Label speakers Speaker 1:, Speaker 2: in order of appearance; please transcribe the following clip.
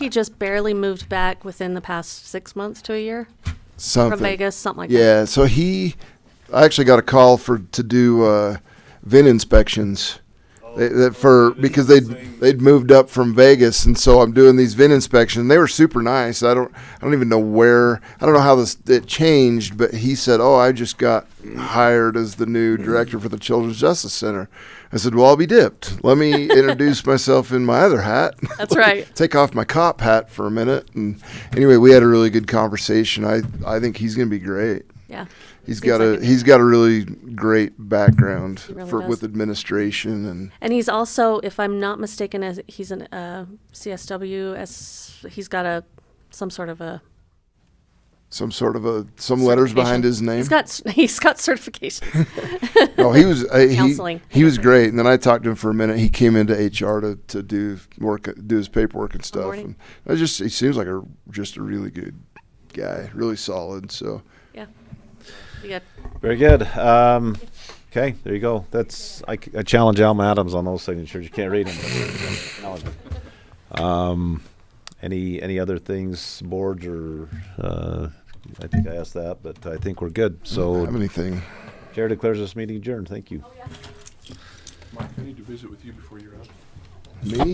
Speaker 1: He just barely moved back within the past six months to a year
Speaker 2: Something.
Speaker 1: from Vegas, something like that.
Speaker 2: Yeah, so he, I actually got a call for to do uh, vent inspections. They, that for because they'd they'd moved up from Vegas, and so I'm doing these VIN inspections. They were super nice. I don't I don't even know where I don't know how this it changed, but he said, "Oh, I just got hired as the new director for the Children's Justice Center." I said, "Well, I'll be dipped. Let me introduce myself in my other hat."
Speaker 1: That's right.
Speaker 2: take off my cop hat for a minute. And anyway, we had a really good conversation. I I think he's going to be great.
Speaker 1: Yeah.
Speaker 2: He's
Speaker 1: Seems
Speaker 2: got
Speaker 1: like
Speaker 2: a
Speaker 1: it.
Speaker 2: he's got a really great background
Speaker 1: He really
Speaker 2: for
Speaker 1: does.
Speaker 2: with administration and
Speaker 1: And he's also, if I'm not mistaken, as he's an uh, CSW. As he's got a some sort of a
Speaker 2: some sort of a some letters
Speaker 1: certification.
Speaker 2: behind his name.
Speaker 1: He's got s- he's got certifications.
Speaker 2: oh, he was uh, he,
Speaker 1: Counseling.
Speaker 2: he was great. And then I talked to him for a minute. He came into HR to, to do work do his paperwork and stuff.
Speaker 1: morning.
Speaker 2: And I just he seems like a just a really good guy, really solid. So
Speaker 1: yeah. You got
Speaker 3: Very good. Um, okay, there you go. That's I, c- I challenge Alma Adams on those signatures. You can't read them. um, any any other things, boards or uh, I think I asked that, but I think we're good.
Speaker 2: I don't have
Speaker 3: So
Speaker 2: anything.
Speaker 3: Chair declares this meeting adjourned. Thank you.
Speaker 4: Mike, I need to visit with you before you're out.
Speaker 2: Me?